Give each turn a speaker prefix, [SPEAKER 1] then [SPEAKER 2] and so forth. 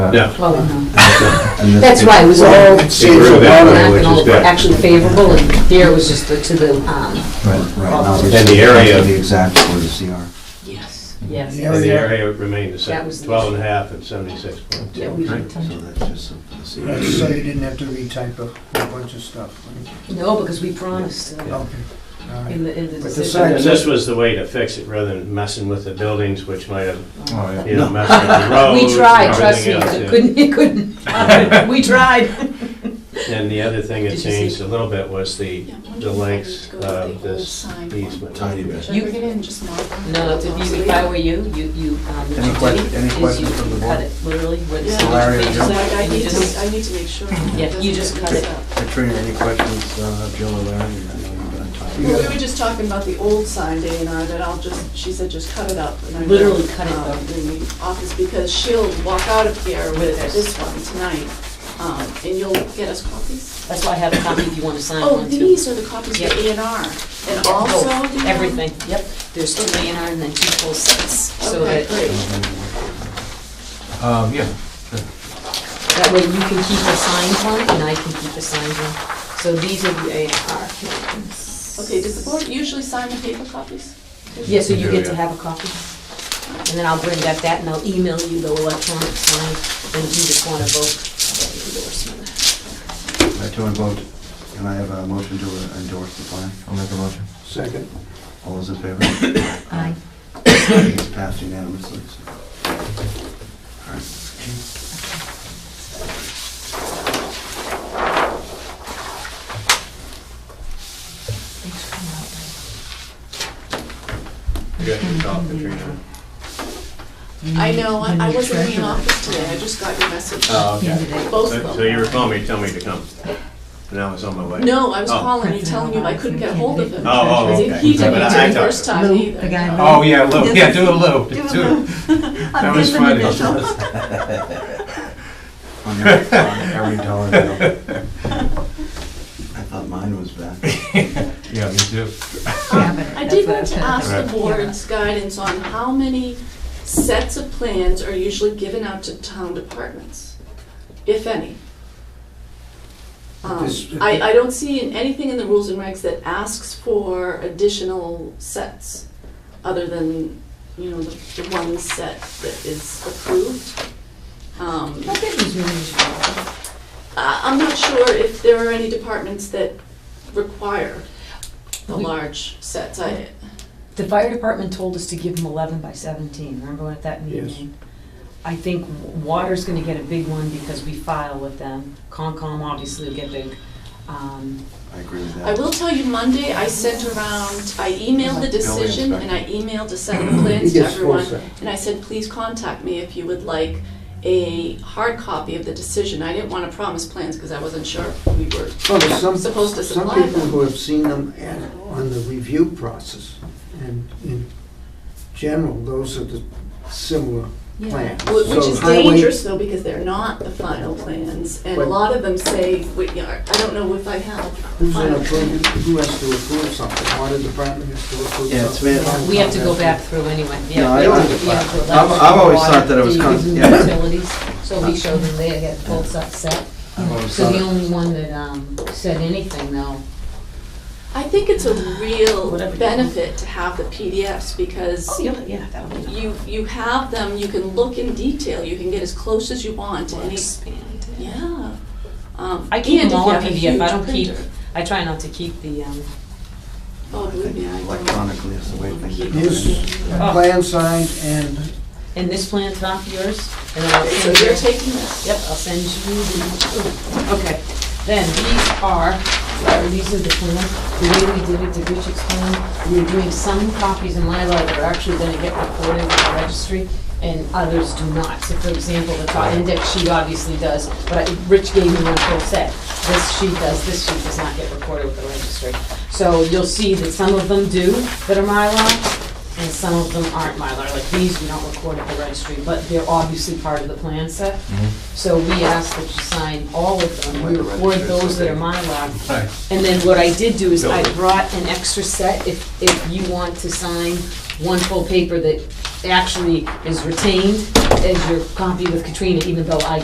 [SPEAKER 1] Yeah.
[SPEAKER 2] Well, no.
[SPEAKER 1] And this-
[SPEAKER 2] That's why it was all changed,
[SPEAKER 1] grew that way,
[SPEAKER 2] not
[SPEAKER 1] which
[SPEAKER 2] and
[SPEAKER 1] is
[SPEAKER 2] all
[SPEAKER 1] good.
[SPEAKER 2] actually favorable, and here it was just the- to the, um,
[SPEAKER 3] Right, right. now we're
[SPEAKER 1] And the area-
[SPEAKER 3] The exact for the CR.
[SPEAKER 2] yes, yes.
[SPEAKER 1] And the area remained the
[SPEAKER 2] That
[SPEAKER 1] same,
[SPEAKER 2] was the-
[SPEAKER 1] 12 and a half and 76.2.
[SPEAKER 2] Yeah, we didn't touch
[SPEAKER 3] So
[SPEAKER 2] it.
[SPEAKER 3] that's just for the
[SPEAKER 4] So you didn't have to retype a whole bunch of stuff.
[SPEAKER 2] No, because we promised uh,
[SPEAKER 4] Okay, all right.
[SPEAKER 2] in the, in the
[SPEAKER 4] the
[SPEAKER 2] decision.
[SPEAKER 4] site-
[SPEAKER 1] And this was the way to fix it, rather than messing with the buildings, which might have,
[SPEAKER 3] CR.
[SPEAKER 1] you know, messed with the roads.
[SPEAKER 2] We
[SPEAKER 1] and
[SPEAKER 2] tried, trust me,
[SPEAKER 1] everything else,
[SPEAKER 2] it
[SPEAKER 1] yeah.
[SPEAKER 2] couldn't, it couldn't, we tried.
[SPEAKER 1] And the other thing that
[SPEAKER 2] Did you
[SPEAKER 1] changed
[SPEAKER 2] see-
[SPEAKER 1] a little bit was the,
[SPEAKER 5] Yeah, when
[SPEAKER 1] the
[SPEAKER 5] you
[SPEAKER 1] lengths
[SPEAKER 5] go to the
[SPEAKER 1] of
[SPEAKER 5] old
[SPEAKER 1] this
[SPEAKER 5] sign one.
[SPEAKER 1] easement.
[SPEAKER 3] Tiny bit.
[SPEAKER 5] Should I bring it in, just mark them?
[SPEAKER 2] No, if you, if I were you, you, you, um, what
[SPEAKER 3] Any
[SPEAKER 2] you
[SPEAKER 3] que-
[SPEAKER 2] did
[SPEAKER 3] any
[SPEAKER 2] is
[SPEAKER 3] questions
[SPEAKER 2] you-
[SPEAKER 3] from the
[SPEAKER 2] you
[SPEAKER 3] board?
[SPEAKER 2] Cut it literally where the
[SPEAKER 5] Yeah.
[SPEAKER 3] Larry or
[SPEAKER 2] signature is,
[SPEAKER 3] Joe?
[SPEAKER 5] Because I I
[SPEAKER 2] and you
[SPEAKER 5] need
[SPEAKER 2] just-
[SPEAKER 5] to, I need to make sure.
[SPEAKER 2] Yeah, you just cut it.
[SPEAKER 3] Katrina, any questions, uh, Jill or Larry? I know you've been on top of
[SPEAKER 5] Well,
[SPEAKER 3] it.
[SPEAKER 5] we were just talking about the old sign, Dana, and that I'll just, she said, just cut it up. and I
[SPEAKER 2] Literally
[SPEAKER 5] wrote,
[SPEAKER 2] cut it
[SPEAKER 5] um,
[SPEAKER 2] up.
[SPEAKER 5] In the office, because she'll walk out of here with
[SPEAKER 2] With this.
[SPEAKER 5] this one tonight, um, and you'll get us copies.
[SPEAKER 2] That's why I have a copy if you want to sign
[SPEAKER 5] Oh,
[SPEAKER 2] one too.
[SPEAKER 5] these are the copies
[SPEAKER 2] Yep.
[SPEAKER 5] of A and R, and
[SPEAKER 2] Yeah,
[SPEAKER 5] also. um,
[SPEAKER 2] both,
[SPEAKER 5] do you know-
[SPEAKER 2] Oh, Everything, yep. There's two A and R and then two full sets, so
[SPEAKER 5] Okay,
[SPEAKER 2] that,
[SPEAKER 5] great.
[SPEAKER 6] Um, yeah,
[SPEAKER 2] that way you can keep a signed one and I can keep a signed one. So these are the A and R.
[SPEAKER 5] Okay, does the board usually sign the paper copies?
[SPEAKER 2] Yeah, so you
[SPEAKER 6] Yeah,
[SPEAKER 2] get to
[SPEAKER 6] yeah.
[SPEAKER 2] have a copy. And then I'll bring back that and I'll email you the electronic sign and you just want to vote for the endorsement.
[SPEAKER 3] I to a vote, can I have a motion to endorse the plan?
[SPEAKER 6] I'll make a motion.
[SPEAKER 4] Second.
[SPEAKER 3] All those in favor?
[SPEAKER 2] Aye.
[SPEAKER 3] It's passed unanimously. so. All right.
[SPEAKER 2] Thanks for coming out.
[SPEAKER 1] You have to call Katrina.
[SPEAKER 5] I know, I I wasn't in the office today, I just got your message.
[SPEAKER 1] Oh, okay.
[SPEAKER 5] Both
[SPEAKER 1] So
[SPEAKER 5] of
[SPEAKER 1] so you were
[SPEAKER 5] them.
[SPEAKER 1] calling me, telling me to come, and I was on my way.
[SPEAKER 5] No, I was
[SPEAKER 1] Oh.
[SPEAKER 5] calling you, telling you I couldn't get hold of him.
[SPEAKER 1] Oh, oh,
[SPEAKER 5] Because
[SPEAKER 1] okay.
[SPEAKER 5] He didn't
[SPEAKER 1] But I-
[SPEAKER 5] answer
[SPEAKER 1] I
[SPEAKER 5] the
[SPEAKER 1] talked
[SPEAKER 5] first
[SPEAKER 1] to
[SPEAKER 5] time either.
[SPEAKER 7] the guy who-
[SPEAKER 6] Oh, yeah, Lou, yeah, do a Lou, do. That was funny.
[SPEAKER 3] On every- on every dollar bill. I thought mine was back.
[SPEAKER 6] Yeah, me too.
[SPEAKER 5] I did want to ask the board's guidance on how many sets of plans are usually given out to town departments, if any. Um,
[SPEAKER 4] This-
[SPEAKER 5] I, I don't see in- anything in the rules and regs that asks for additional sets, other than, you know, the the one set that is approved. Um,
[SPEAKER 2] I think these meetings are-
[SPEAKER 5] I- I'm not sure if there are any departments that require the
[SPEAKER 2] We-
[SPEAKER 5] large sets. I,
[SPEAKER 2] The fire department told us to give them eleven by seventeen, remember what that
[SPEAKER 4] Yes.
[SPEAKER 2] meeting? I think w- water's gonna get a big one because we file with them, Concom obviously will get big. Um,
[SPEAKER 3] I agree with
[SPEAKER 5] I
[SPEAKER 3] that.
[SPEAKER 5] will tell you, Monday, I sent around, I emailed the decision and I emailed a set of plans
[SPEAKER 4] He
[SPEAKER 5] to
[SPEAKER 4] gets four
[SPEAKER 5] everyone.
[SPEAKER 4] sets.
[SPEAKER 5] And I said, please contact me if you would like a hard copy of the decision. I didn't want to promise plans because I wasn't sure if we were.
[SPEAKER 4] Well, there's some,
[SPEAKER 5] Supposed to
[SPEAKER 4] some
[SPEAKER 5] supply
[SPEAKER 4] people
[SPEAKER 5] them.
[SPEAKER 4] who have seen them at- on the review process, and in general, those are the similar plans.
[SPEAKER 5] Wh- Which
[SPEAKER 4] So
[SPEAKER 5] is
[SPEAKER 4] highway-
[SPEAKER 5] dangerous though, because they're not the final plans. And a
[SPEAKER 4] But-
[SPEAKER 5] lot of them say, "We- you know, I don't know if I have the
[SPEAKER 4] Who's gonna
[SPEAKER 5] final
[SPEAKER 4] approve,
[SPEAKER 5] plans.
[SPEAKER 4] who has to approve something? Water department has to approve something?
[SPEAKER 3] Yeah, it's been-
[SPEAKER 2] we have to go back through anyway, yeah.
[SPEAKER 3] No, I
[SPEAKER 2] we
[SPEAKER 3] don't
[SPEAKER 2] have
[SPEAKER 3] think
[SPEAKER 2] to- yeah,
[SPEAKER 3] so.
[SPEAKER 2] for
[SPEAKER 3] I've-
[SPEAKER 2] electric,
[SPEAKER 3] I've always
[SPEAKER 2] water,
[SPEAKER 3] thought that it was
[SPEAKER 2] DEP,
[SPEAKER 3] con- yeah.
[SPEAKER 2] Utilities, so we showed them they had both sets set.
[SPEAKER 3] I've always
[SPEAKER 2] So
[SPEAKER 3] thought
[SPEAKER 2] the
[SPEAKER 3] it-
[SPEAKER 2] only one that, um, said anything though,
[SPEAKER 5] I think it's a real
[SPEAKER 2] Whatever you want.
[SPEAKER 5] benefit to have the PDFs because
[SPEAKER 2] oh, yeah, yeah, that would be.
[SPEAKER 5] you, you have them, you can look in detail, you can get as close as you want to any,
[SPEAKER 2] Expand.
[SPEAKER 5] yeah. Um,
[SPEAKER 2] I keep
[SPEAKER 5] and
[SPEAKER 2] them
[SPEAKER 5] if
[SPEAKER 2] all
[SPEAKER 5] you
[SPEAKER 2] on
[SPEAKER 5] have
[SPEAKER 2] PDF,
[SPEAKER 5] a
[SPEAKER 2] I
[SPEAKER 5] huge
[SPEAKER 2] don't keep,
[SPEAKER 5] printer.
[SPEAKER 2] I try not to keep the, um,
[SPEAKER 5] Oh,
[SPEAKER 3] I
[SPEAKER 5] believe
[SPEAKER 3] think
[SPEAKER 5] me, I don't.
[SPEAKER 3] Electronically is the way things are
[SPEAKER 4] Here's
[SPEAKER 3] going.
[SPEAKER 2] Oh.
[SPEAKER 4] plan signed and
[SPEAKER 2] and this plan's not yours, and then I'll
[SPEAKER 5] So
[SPEAKER 2] send
[SPEAKER 5] you're
[SPEAKER 2] you.
[SPEAKER 5] taking this?
[SPEAKER 2] Yep, I'll send you the, okay. Then these are, Larry, these are the plans, the way we did it, the Richard's plan. We were doing some copies in my that are actually gonna get recorded with the registry, and others do not. So for example, the top index sheet obviously does, but I- Rich gave me one full set. This sheet does, this sheet does not get recorded with the registry. So you'll see that some of them do that are Mylar, and some of them aren't Mylar. Like these, we don't record at the registry, but they're obviously part of the plan set. So we asked that you sign all of them, we record those that are Mylar.
[SPEAKER 6] Right.
[SPEAKER 2] And then what I did do is I brought an extra set, if, if you want to sign one full paper that actually is retained as your copy with Katrina, even though I